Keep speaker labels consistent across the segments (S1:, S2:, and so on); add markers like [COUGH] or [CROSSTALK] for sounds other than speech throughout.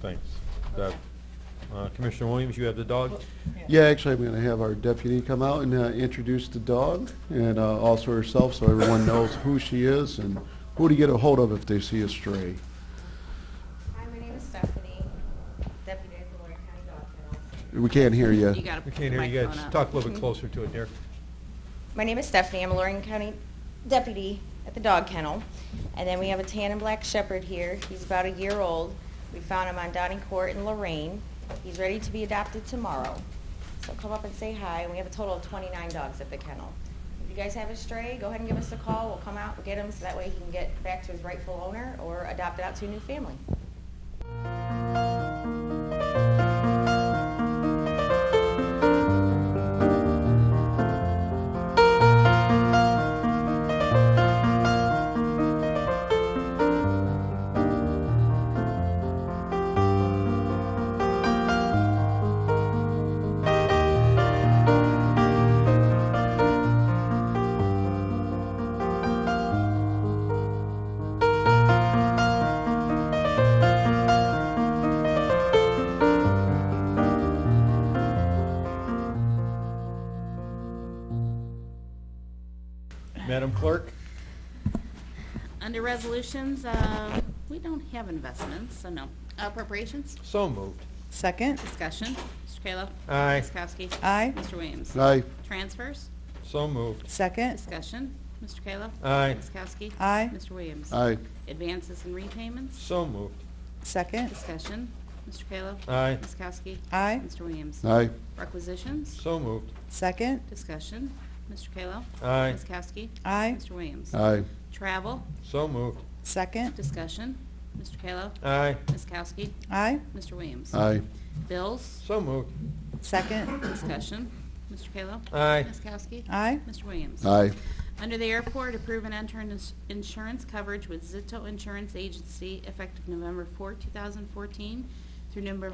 S1: Thanks. That- uh, Commissioner Williams, you have the dog?
S2: Yeah, actually, I'm going to have our deputy come out and uh, introduce the dog and uh, also herself so everyone knows who she is and who to get a hold of if they see a stray.
S3: Hi, my name is Stephanie, Deputy at Lorraine County Dog Kennel.
S2: We can't hear you.
S4: You gotta
S1: We
S4: put the
S1: can't hear you guys.
S4: microphone up.
S1: Talk a little bit closer to it, dear.
S3: My name is Stephanie. I'm a Lorraine County deputy at the dog kennel. And then we have a tan and black shepherd here. He's about a year old. We found him on Downing Court in Lorraine. He's ready to be adopted tomorrow. So come up and say hi. And we have a total of 29 dogs at the kennel. If you guys have a stray, go ahead and give us a call. We'll come out and get him so that way he can get back to his rightful owner or adopt it out to a new family.
S1: Madam Clerk?
S4: Under resolutions, uh, we don't have investments, so no. Appropriations,
S1: So moved.
S5: Second,
S4: discussion, Mr. Kayla.
S1: Aye.
S4: Ms. Kowski.
S5: Aye.
S4: Mr. Williams.
S2: Aye,
S4: Transfers,
S1: So moved.
S5: second,
S4: discussion, Mr. Kayla.
S1: Aye.
S4: Ms. Kowski.
S5: Aye.
S4: Mr. Williams.
S2: aye,
S4: Advances and repayments,
S1: So moved.
S5: second,
S4: discussion, Mr. Kayla.
S1: Aye.
S4: Ms. Kowski.
S5: Aye.
S4: Mr. Williams.
S2: aye,
S4: Requisitions,
S1: So moved.
S5: second,
S4: discussion, Mr. Kayla.
S1: Aye.
S4: Ms. Kowski.
S5: aye,
S4: Mr. Williams.
S2: aye,
S4: Travel,
S1: So moved.
S5: second,
S4: discussion, Mr. Kayla.
S1: Aye.
S4: Ms. Kowski.
S5: aye,
S4: Mr. Williams.
S2: aye,
S4: Bills,
S1: So moved.
S5: second,
S4: Discussion. Mr. Kayla?
S1: Aye.
S4: Ms. Kowski?
S5: aye,
S4: Mr. Williams?
S2: aye,
S4: Under the airport, approve and enter ins- insurance coverage with Zito Insurance Agency effective November 4, 2014 through November-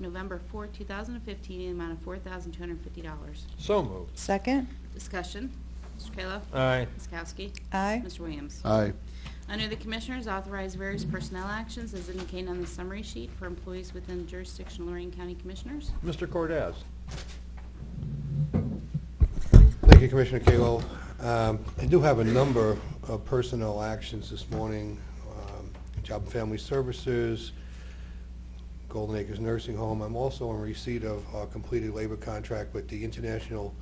S4: November 4, 2015, in the amount of $4,250.
S1: So moved.
S5: second,
S4: Discussion. Mr. Kayla?
S1: Aye.
S4: Ms. Kowski?
S5: aye,
S4: Mr. Williams?
S2: aye,
S4: Under the Commissioners, authorize various personnel actions as indicated on the summary sheet for employees within jurisdiction of Lorraine County Commissioners.
S1: Mr. Cordez?
S6: Thank you, Commissioner Kalo. Um, I do have a number of personnel actions this morning. um, Job and Family Services, Golden Acres Nursing Home. I'm also in receipt of a completed labor contract with the International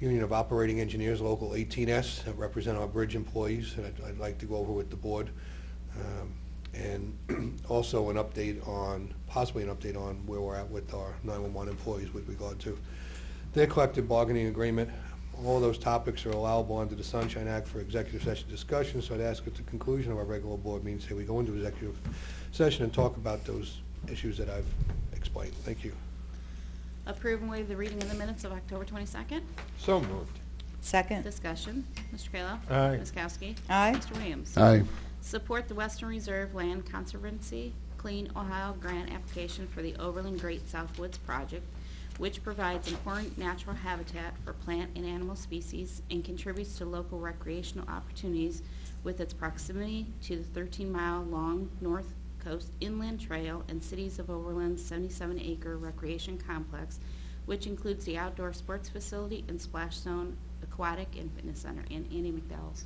S6: Union of Operating Engineers, Local 18S, that represent our bridge employees, and I'd- I'd like to go over with the board. Um, And [CLEARS THROAT] also an update on, possibly an update on where we're at with our 911 employees with regard to their collective bargaining agreement. All those topics are allowable under the Sunshine Act for executive session discussion, so I'd ask at the conclusion of our regular board meeting, say we go into executive session and talk about those issues that I've explained. Thank you.
S4: Approve and waive the reading of the minutes of October 22nd.
S1: So moved.
S5: second,
S4: Discussion. Mr. Kayla?
S1: Aye.
S4: Ms. Kowski?
S5: aye,
S4: Mr. Williams?
S2: aye,
S4: Support the Western Reserve Land Conservancy Clean Ohio Grant application for the Overland Great Southwoods Project, which provides important natural habitat for plant and animal species and contributes to local recreational opportunities with its proximity to the 13-mile-long North Coast Inland Trail and Cities of Overland's 77-acre recreation complex, which includes the outdoor sports facility and splash zone, aquatic and fitness center, and Andy McDowell's.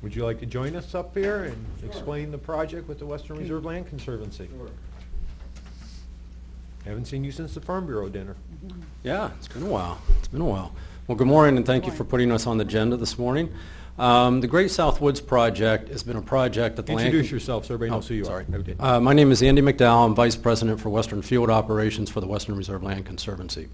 S1: Would you like to join us up here and explain the project with the Western Reserve Land Conservancy? Haven't seen you since the Farm Bureau dinner.
S7: Yeah, it's been a while. It's been a while. Well, good morning, and thank you for putting us on the agenda this morning. Um, The Great South Woods Project has been a project that the land...
S1: Introduce yourself so everybody
S7: Oh,
S1: knows who you are.
S7: sorry.
S1: Okay.
S7: Uh, My name is Andy McDowell. I'm Vice President for Western Field Operations for the Western Reserve Land Conservancy.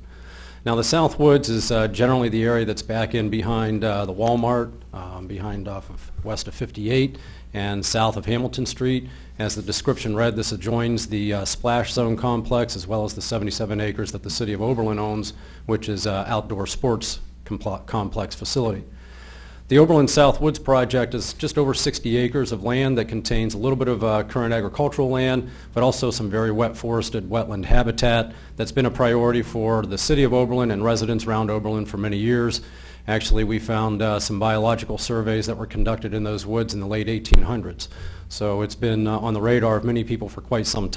S7: Now, the South Woods is uh, generally the area that's back in behind uh, the Walmart, um, behind off of west of 58 and south of Hamilton Street. As the description read, this adjoins the uh, splash zone complex as well as the 77 acres that the city of Oberlin owns, which is uh, outdoor sports compl- complex facility. The Oberlin South Woods project is just over 60 acres of land that contains a little bit of uh, current agricultural land, but also some very wet forested wetland habitat that's been a priority for the city of Oberlin and residents around Oberlin for many years. Actually, we found uh, some biological surveys that were conducted in those woods in the late 1800s. So it's been uh, on the radar of many people for quite some time.